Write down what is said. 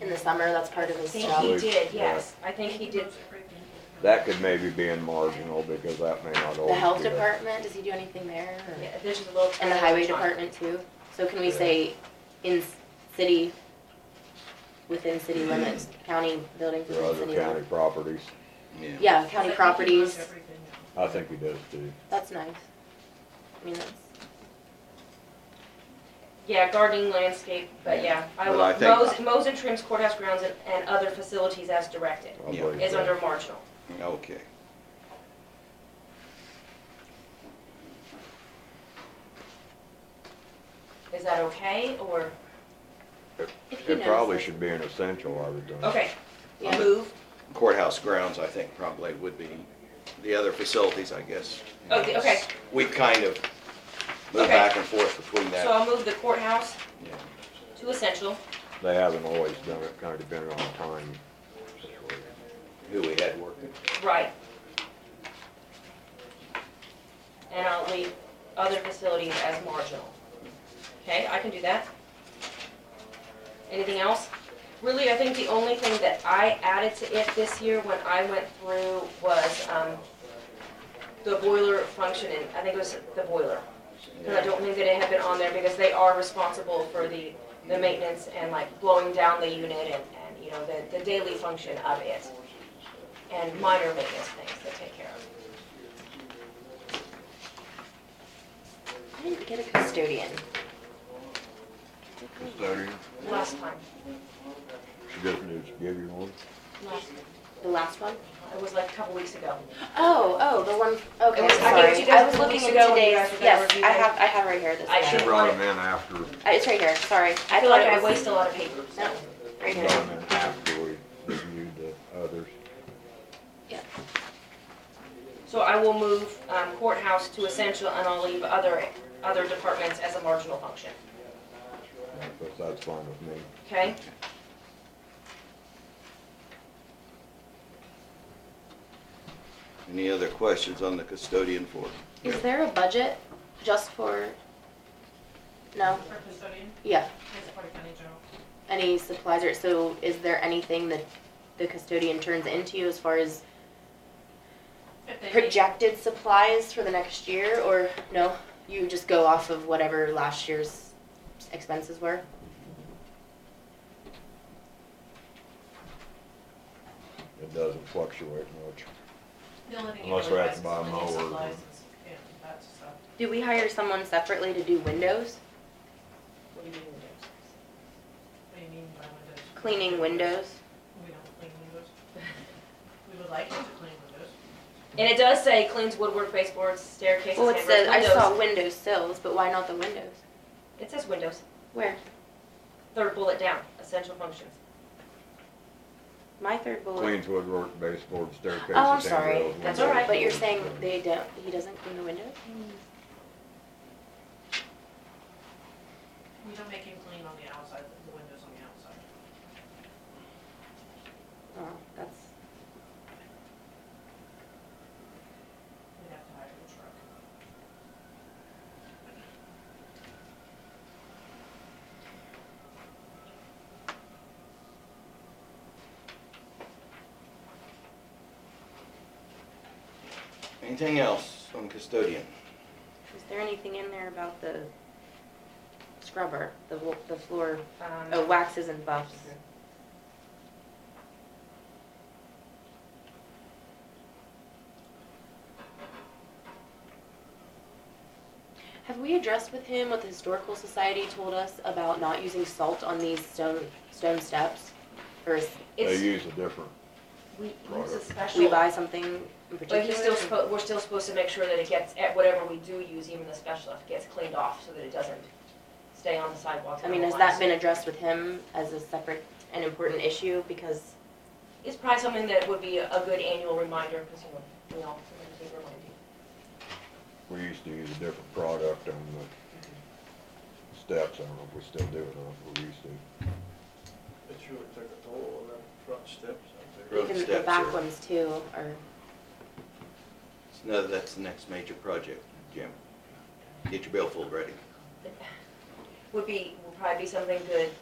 in the summer, that's part of his think he job. did, yes, I think he did. That could maybe be in marginal because that may not always The health be a- department, does he do anything there? or- Yeah, Uh, There's a little. And the highway trailer on department too? So can we say in s- city, within city limits, county buildings Or within other city county limits? properties. Yeah, county properties, I think he does too. that's nice. I mean, that's, top. Yeah, gardening, landscape, but yeah, I But will, I think- mows, mows and trims courthouse grounds and, and other facilities as directed I Yeah. believe is that. under marginal. Okay. Is that okay, or, if he knows. It probably that's- should be an essential, I would think. okay, Yeah. move, Courthouse grounds, I think, probably would be, the other facilities, I guess. Okay, okay. We kind of move Okay. back and forth between so that. I'll move the courthouse Yeah. to essential, They haven't always done it, kinda depending on time. situation. Who we had working. right. And I'll leave other facilities as marginal. Okay, I can do that. Anything else? Really, I think the only thing that I added to it this year when I went through was, um, the boiler function, and I think it was the boiler. Cause I don't think that it had been on there because they are responsible for the, the maintenance and like blowing down the unit and, and, you know, the, the daily function of it. And minor maintenance things they take care of. I didn't get a custodian. Custodian, Last time, she just needs to give you one. last, The last one? it was like a couple weeks ago. Oh, oh, the one, okay, It was- I gave it to you sorry. guys I was a couple looking weeks at ago when you today's, guys were gonna yes, review I it. have, I have right here this. I guy. She should- brought him in after, Uh, It's right here, sorry. I feel like it I was- waste a lot of paper. No, right brought him here. in after we reviewed the others. So I will move um, courthouse to essential and I'll leave other, other departments as a marginal function, Because that's fine with me. okay? Any other questions on the custodian for? Is there a budget just for, no? For custodian, Yeah, it's for county general. any supplies or, so is there anything that the custodian turns into you as far as If they need- projected supplies for the next year or no? You just go off of whatever last year's expenses were? It doesn't fluctuate much. the only thing you Unless really we have to buy buy a is mower or- supplies and- and that stuff. Do we hire someone separately to do windows, What do you mean windows? What do you mean by windows? cleaning windows? We don't clean windows. We would like you to clean windows. And it does say cleans woodwork baseboards, staircases, Well, it handles, says, I saw windows. window sills, but why not the windows? It says windows, Where? third bullet down, essential functions. My third bullet. Cleans woodwork, baseboard, staircases, Oh, I'm sorry. handrails, That's windows, all right. But you're saying doors. they don't, he doesn't clean the windows? We don't make him clean on the outside, the windows on the outside. Oh, that's, We'd have to hire a truck. Anything else on custodian? is there anything in there about the scrubber, the, wo- the floor, Um, oh, waxes and buffs? Have we addressed with him what the historical society told us about not using salt on these stone, stone steps? Or is- They It's, use a different, we use a product. special. we buy something in particular? But he's still supposed, we're still supposed to make sure that it gets, at whatever we do use, even the special stuff, gets cleaned off so that it doesn't stay on the sidewalks. I mean, has that been addressed with him as a separate and important issue? Because It's probably something that would be a good annual reminder, because, you know, we all, we keep reminding. we used to use a different product on the steps. I don't know if we still do it or not, but we used to. It sure took a toll on them front steps out there. Road even the steps back are- ones too are, No, that's the next major project, Jim. Get your billfold ready. Would be, would probably be something good